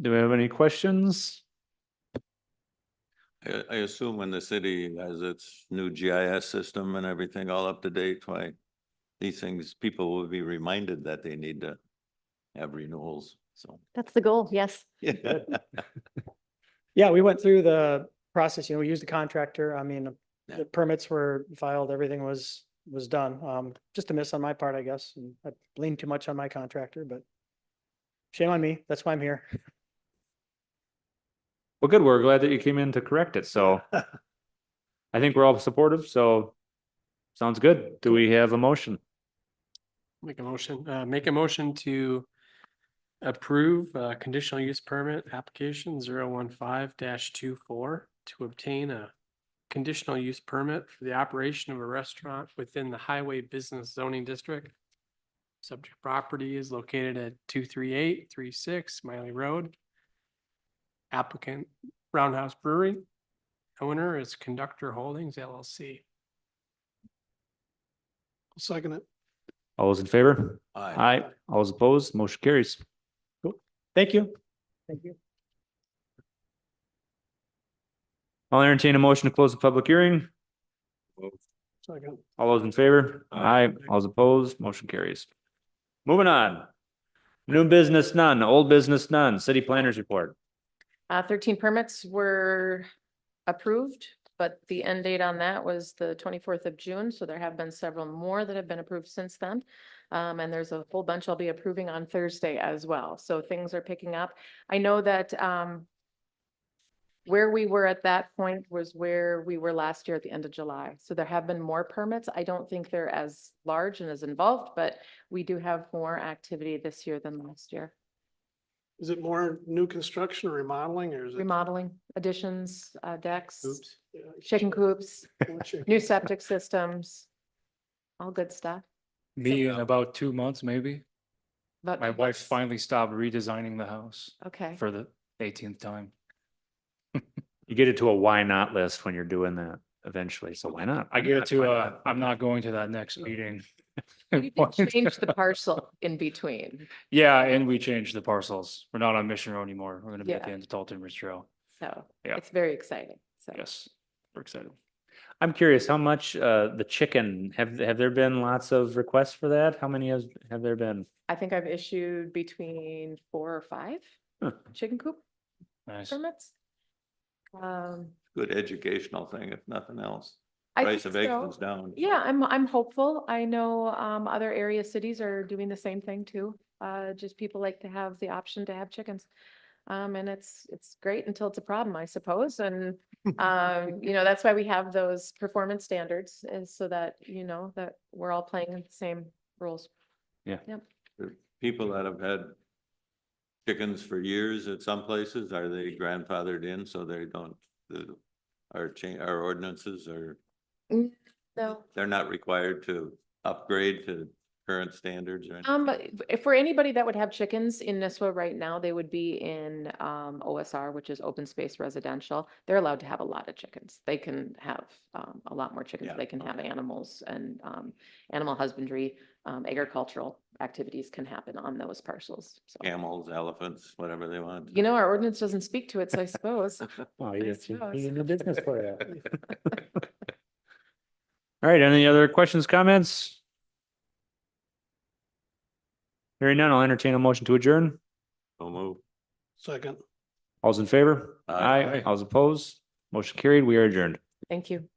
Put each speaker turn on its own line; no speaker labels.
Do we have any questions?
I, I assume when the city has its new GIS system and everything all up to date, why these things, people will be reminded that they need to have renewals, so.
That's the goal, yes.
Yeah, we went through the process, you know, we used the contractor. I mean,
Yeah.
the permits were filed, everything was, was done. Um, just a miss on my part, I guess. and I leaned too much on my contractor, but shame on me. That's why I'm here.
Well, good. We're glad that you came in to correct it. So I think we're all supportive. So sounds good. Do we have a motion?
Make a motion, uh, make a motion to approve, uh, conditional use permit application zero one five dash two four to obtain a conditional use permit for the operation of a restaurant within the highway business zoning district. Subject property is located at two three eight three six Miley Road. Applicant Roundhouse Brewery. Owner is Conductor Holdings LLC.
Second it.
All those in favor?
Aye.
Aye. All those opposed? Motion carries.
Thank you. Thank you.
I'll entertain a motion to close the public hearing.
Second.
All those in favor?
Aye.
Aye. All those opposed? Motion carries. Moving on. New business none, old business none, city planners report.
Uh, thirteen permits were approved, but the end date on that was the twenty-fourth of June, so there have been several more that have been approved since then. Um, and there's a whole bunch I'll be approving on Thursday as well, so things are picking up. I know that, um, where we were at that point was where we were last year at the end of July, so there have been more permits. I don't think they're as large and as involved, but we do have more activity this year than last year.
Is it more new construction or remodeling or is it?
Remodeling, additions, uh, decks.
Oops.
Yeah,
chicken coops,
what's your-
new septic systems, all good stuff.
Me in about two months, maybe.
But
My wife finally stopped redesigning the house
Okay,
for the eighteenth time.
You get it to a why not list when you're doing that eventually. So why not?
I get it to,
Why
uh,
not?
I'm not going to that next meeting.
you did change the parcel in between.
Yeah, and we changed the parcels. We're not on Mission Road anymore. We're gonna be at
Yeah.
the end of Dalton Ridge Trail.
So
Yeah.
it's very exciting. So
Yes, we're excited.
I'm curious, how much, uh, the chicken, have, have there been lots of requests for that? How many has, have there been?
I think I've issued between four or five
Huh.
chicken coop
Nice.
permits. Um,
Good educational thing, if nothing else.
I
Price
think
of
so.
eggs goes down.
Yeah, I'm, I'm hopeful. I know, um, other area cities are doing the same thing too. Uh, just people like to have the option to have chickens. Um, and it's, it's great until it's a problem, I suppose. And, um, you know, that's why we have those performance standards is so that, you know, that we're all playing in the same rules.
The People that have had chickens for years at some places, are they grandfathered in so they don't, the, our cha- our ordinances are,
No.
they're not required to upgrade to current standards or anything?
Um, but if for anybody that would have chickens in Nisswa right now, they would be in, um, OSR, which is open space residential. They're allowed to have a lot of chickens. They can have, um, a lot more chickens.
Yeah,
They can have animals and, um, animal husbandry, um, agricultural activities can happen on those parcels. So,
Camels, elephants, whatever they want.
you know, our ordinance doesn't speak to it, so I suppose.
Oh,
you I got your- suppose. your
new business for that. All right, any other questions, comments? Hearing none, I'll entertain a motion to adjourn.
So move.
Second.
All's in favor?
Aye.
All's opposed? Motion carried, we are adjourned.
Thank you.